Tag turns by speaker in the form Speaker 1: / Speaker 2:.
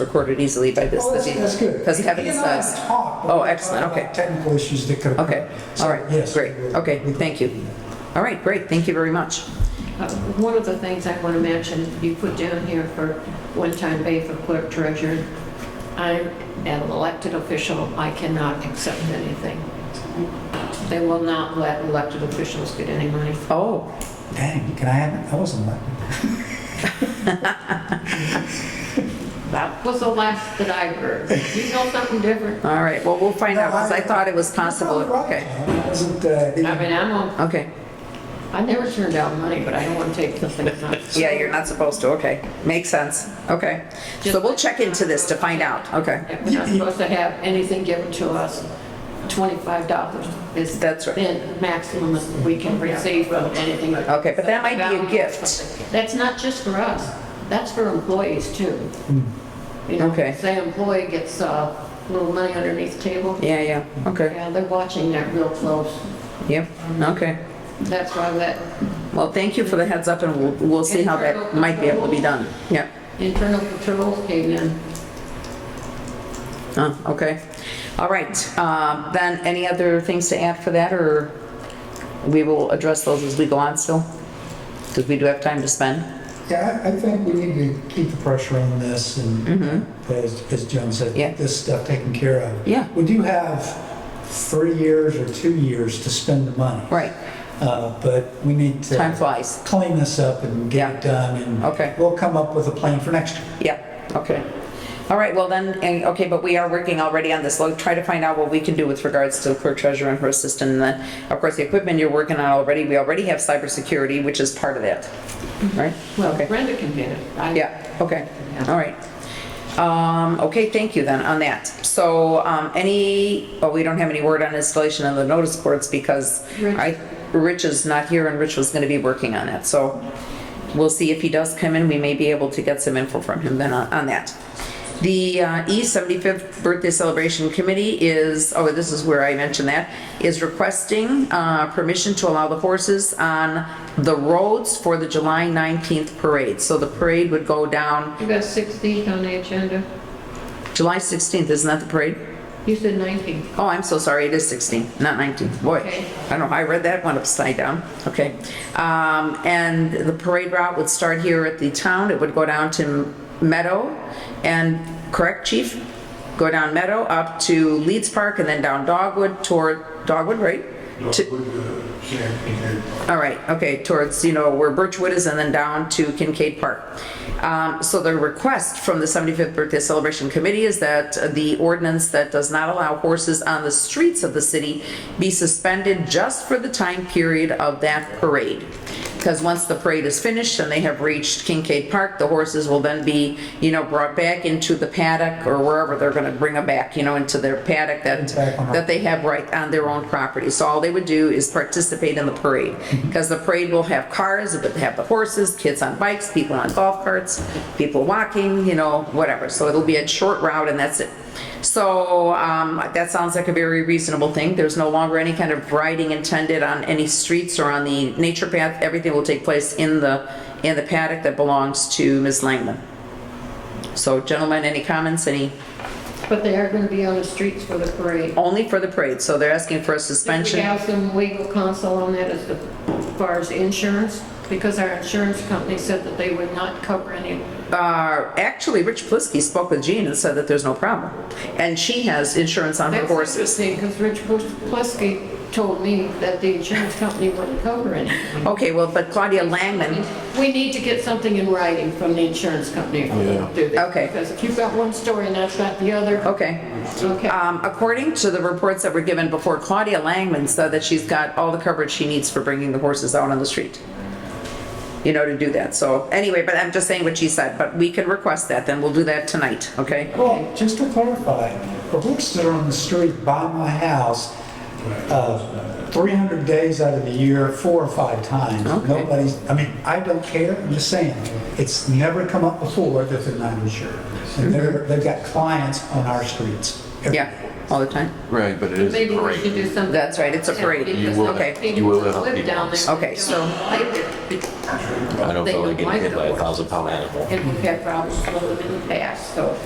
Speaker 1: recorded easily by this.
Speaker 2: Oh, that's,
Speaker 1: this-
Speaker 2: that's good.
Speaker 1: Does it have it
Speaker 2: He and I
Speaker 1: sized?
Speaker 2: have talked, but
Speaker 1: Oh,
Speaker 2: we
Speaker 1: excellent,
Speaker 2: talked about
Speaker 1: okay.
Speaker 2: Technical issues that could occur.
Speaker 1: Okay, all right,
Speaker 2: So, yes, Mm-hmm.
Speaker 1: great,
Speaker 2: we-
Speaker 1: okay,
Speaker 2: we-
Speaker 1: thank you. All right, great, thank you very much.
Speaker 3: Uh, One of the things I want to mention, you put down here for one-time pay for clerk treasurer. I'm an elected official, I cannot accept anything. They will not let elected officials get any money.
Speaker 1: Oh,
Speaker 2: Dang, can I have, I wasn't like,
Speaker 3: That was the last that I heard. You know something different?
Speaker 1: all right, well, we'll find out, because I
Speaker 2: No, I-
Speaker 1: thought it was possible. Okay,
Speaker 2: It wasn't, uh,
Speaker 3: I mean, I'm, on-
Speaker 1: okay.
Speaker 3: I never turned down money, but I don't want to take the things on.
Speaker 1: Yeah, you're not supposed to, okay. Makes sense, okay. So we'll check into this to find out, okay.
Speaker 3: We're not supposed to have anything given to us. $25 is
Speaker 1: That's right.
Speaker 3: the maximum that we can receive from anything.
Speaker 1: Okay, but that might be a gift.
Speaker 3: That's not just for us, that's for employees too. You know,
Speaker 1: Hmm. Okay.
Speaker 3: Say employee gets uh, a little money underneath the table,
Speaker 1: Yeah, yeah, okay,
Speaker 3: yeah, they're watching that real close.
Speaker 1: yep, okay.
Speaker 3: That's why that
Speaker 1: Well, thank you for the heads up, and we'll, we'll see how that might be able to be done. Yeah,
Speaker 3: internal controls came in.
Speaker 1: oh, okay. All right, um, then, any other things to add for that, or we will address those as we go on still? Because we do have time to spend.
Speaker 2: yeah, I I think we need to keep the pressure on this and, as, as Joan said,
Speaker 1: Mm-hmm. Yeah.
Speaker 2: get this stuff taken care of.
Speaker 1: Yeah.
Speaker 2: We do have three years or two years to spend the money.
Speaker 1: Right,
Speaker 2: Uh, but we need to.
Speaker 1: time flies.
Speaker 2: Clean this up and get it
Speaker 1: Yeah.
Speaker 2: done and.
Speaker 1: Okay.
Speaker 2: We'll come up with a plan for next year.
Speaker 1: Yeah, okay. All right, well then, and, okay, but we are working already on this. We'll try to find out what we can do with regards to the clerk treasurer and her assistant. And then, of course, the equipment you're working on already, we already have cybersecurity, which is part of that, right?
Speaker 3: Well,
Speaker 1: Okay.
Speaker 3: Brenda can get it. I-
Speaker 1: Yeah, okay,
Speaker 3: Yeah.
Speaker 1: all right. Um, okay, thank you then on that. So, um, any, oh, we don't have any word on installation of the notice boards because
Speaker 3: Rich.
Speaker 1: I, Rich is not here and Rich was gonna be working on it, so we'll see if he does come in, we may be able to get some info from him then on, on that. The, uh, E seventy-fifth Birthday Celebration Committee is, oh, this is where I mentioned that, is requesting, uh, permission to allow the horses on the roads for the July nineteenth parade. So the parade would go down
Speaker 3: You got 16 on the agenda,
Speaker 1: July 16th, isn't that the parade?
Speaker 3: you said 19.
Speaker 1: Oh, I'm so sorry, it is 16th, not 19th. Boy,
Speaker 3: Okay.
Speaker 1: I don't know, I read that one upside down. Okay. Um, And the parade route would start here at the town, it would go down to Meadow, and, correct, chief? Go down Meadow, up to Leeds Park, and then down Dogwood toward, Dogwood, right? To- all right, okay, towards, you know, where Birchwood is and then down to Kincaid Park. Um, So the request from the 75th Birthday Celebration Committee is that the ordinance that does not allow horses on the streets of the city be suspended just for the time period of that parade. Because once the parade is finished and they have reached Kincaid Park, the horses will then be, you know, brought back into the paddock or wherever they're going to bring them back, you know, into their paddock that,
Speaker 2: Back on our
Speaker 1: that that they have right on their own property. So all they would do is participate in the parade. Because the parade will have cars, it would have the horses, kids on bikes, people on golf carts, people walking, you know, whatever. So it'll be a short route and that's it. So um, that sounds like a very reasonable thing. There's no longer any kind of riding intended on any streets or on the nature path. Everything will take place in the, in the paddock that belongs to Ms. Langman. So gentlemen, any comments, any,
Speaker 3: But they are going to be on the streets for the parade.
Speaker 1: only for the parade. So they're asking for a
Speaker 3: Did
Speaker 1: suspension.
Speaker 3: we have some legal counsel on that as the- as far as insurance? Because our insurance company said that they would not cover any.
Speaker 1: Uh, actually, Rich Plisky spoke with Jean and said that there's no problem. And she has insurance on her horses.
Speaker 3: Because Rich Plisky told me that the insurance company wouldn't cover any.
Speaker 1: Okay, well, but Claudia Langman,
Speaker 3: We need to get something in writing from the insurance company if we're going to do that.
Speaker 1: Okay.
Speaker 3: Because if you've got one story and that's not the other,
Speaker 1: okay.
Speaker 3: okay.
Speaker 1: Um, according to the reports that were given before, Claudia Langman said that she's got all the coverage she needs for bringing the horses out on the street. You know, to do that. So anyway, but I'm just saying what she said, but we can request that, then we'll do that tonight, okay?
Speaker 2: Well, just to clarify, the horses that are on the street by my house, uh, 300 days out of the year, four or five times.
Speaker 1: Okay.
Speaker 2: Nobody's, I mean, I don't care, I'm just saying, it's never come up before that they're not insured. And they're, they've got clients on our streets.
Speaker 1: Yeah, all the time.
Speaker 4: Right, but it is a
Speaker 3: Maybe we should
Speaker 4: parade.
Speaker 3: do something.
Speaker 1: That's right, it's a parade.
Speaker 4: You will-
Speaker 1: Okay.
Speaker 4: you will have
Speaker 3: Live down there.
Speaker 1: Okay, so-
Speaker 3: I
Speaker 4: I don't feel like getting hit by a thousand pound animal.
Speaker 3: And we've had problems with them in the past, so